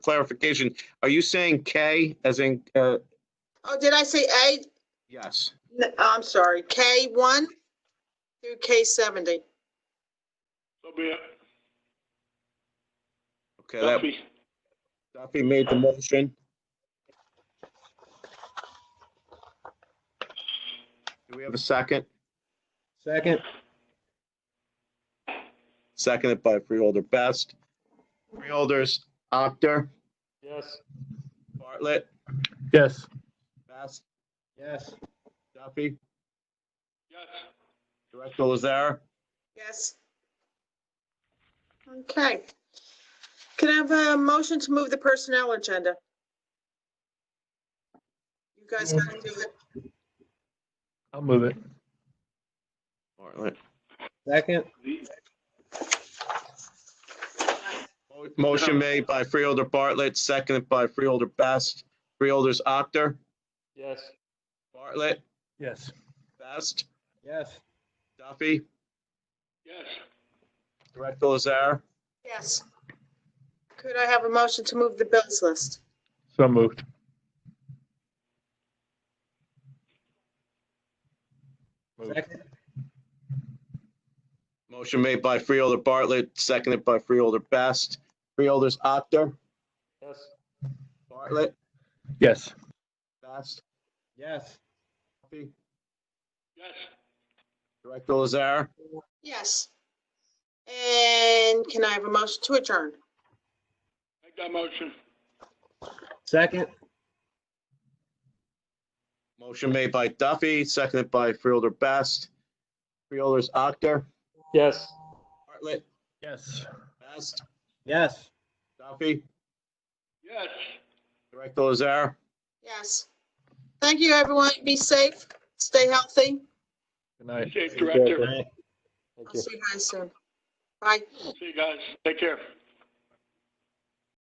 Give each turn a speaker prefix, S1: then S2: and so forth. S1: clarification, are you saying K as in, uh,
S2: Oh, did I say A?
S1: yes?
S2: N- I'm sorry, K1 through K70.
S3: So be it.
S1: Okay, that,
S3: Duffy,
S1: Duffy made the motion. Do we have a second?
S4: Second,
S1: Seconded by Freeholder Best. Freeholders, Actor,
S3: Yes.
S1: Bartlett,
S5: Yes,
S1: Best,
S4: yes,
S1: Duffy,
S3: Yes.
S1: Director Lazar.
S2: Yes. Okay. Can I have a motion to move the personnel agenda? You guys gotta do it.
S5: I'll move it.
S1: Bartlett.
S4: second,
S3: The-
S1: Motion made by Freeholder Bartlett, seconded by Freeholder Best. Freeholders, Actor,
S3: Yes.
S1: Bartlett,
S5: Yes,
S1: Best,
S4: yes,
S1: Duffy,
S3: Yes.
S1: Director Lazar.
S2: Yes. Could I have a motion to move the bills list?
S5: so moved. Moved.
S4: second,
S1: Motion made by Freeholder Bartlett, seconded by Freeholder Best. Freeholders, Actor,
S3: Yes.
S1: Bartlett,
S5: Yes,
S1: Best,
S4: yes,
S1: Duffy,
S3: Yes.
S1: Director Lazar.
S2: Yes. And can I have a motion to adjourn?
S3: Make that motion.
S4: second,
S1: Motion made by Duffy, seconded by Freeholder Best. Freeholders, Actor,
S3: Yes.
S1: Bartlett,
S5: yes.
S1: Best,
S4: yes.
S1: Duffy,
S3: Yes.
S1: Director Lazar.
S2: Yes. Thank you, everyone. Be safe, stay healthy.
S5: Good night.
S3: Safe director.
S2: I'll see you guys soon. Bye.
S3: See you guys. Take care.